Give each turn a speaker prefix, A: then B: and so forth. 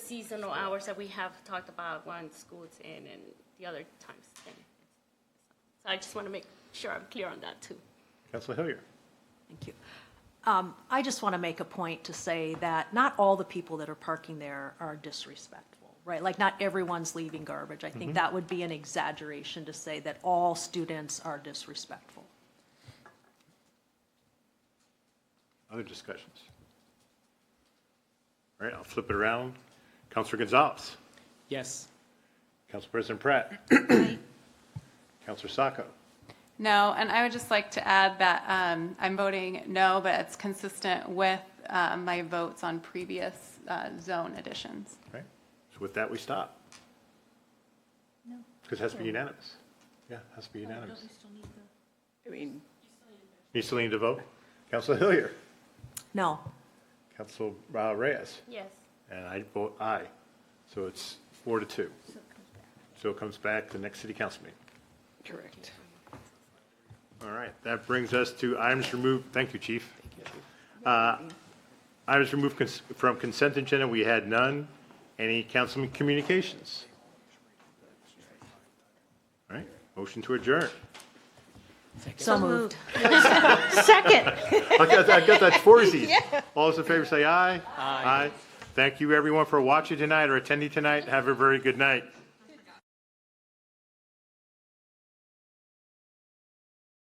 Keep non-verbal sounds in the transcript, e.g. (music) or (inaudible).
A: seasonal hours that we have talked about when school's in and the other times. then. So I just want to make sure I'm clear on that, too.
B: Councilor Hillier.
C: Thank you. Um, I just want to make a point to say that not all the people that are parking there are disrespectful, right? Like, not everyone's leaving garbage. I think that would be an exaggeration to say that all students are disrespectful.
B: Other discussions? All right, I'll flip it around. Councilor Gonzalez.
D: Yes.
B: Council President Pratt. Councilor Sacco.
E: No, and I would just like to add that um, I'm voting no, but it's consistent with uh, my votes on previous uh, zone additions.
B: All right, so with that, we stop. Because it has to be unanimous. Yeah, it has to be unanimous.
F: I mean,
B: You still need to vote? Councilor Hillier.
C: No,
B: Council uh, Reyes.
A: Yes.
B: And I vote aye. So it's four to two. So it comes back to the next city council meeting.
F: correct.
B: All right, that brings us to items removed, thank you, chief. Uh, Items removed cons- from consent agenda, we had none. Any councilman communications? All right, motion to adjourn.
C: so moved.
B: I got, I got that (laughs) foursies. All those in favor say aye. Aye. Thank you, everyone, for watching tonight or attending tonight. Have a very good night.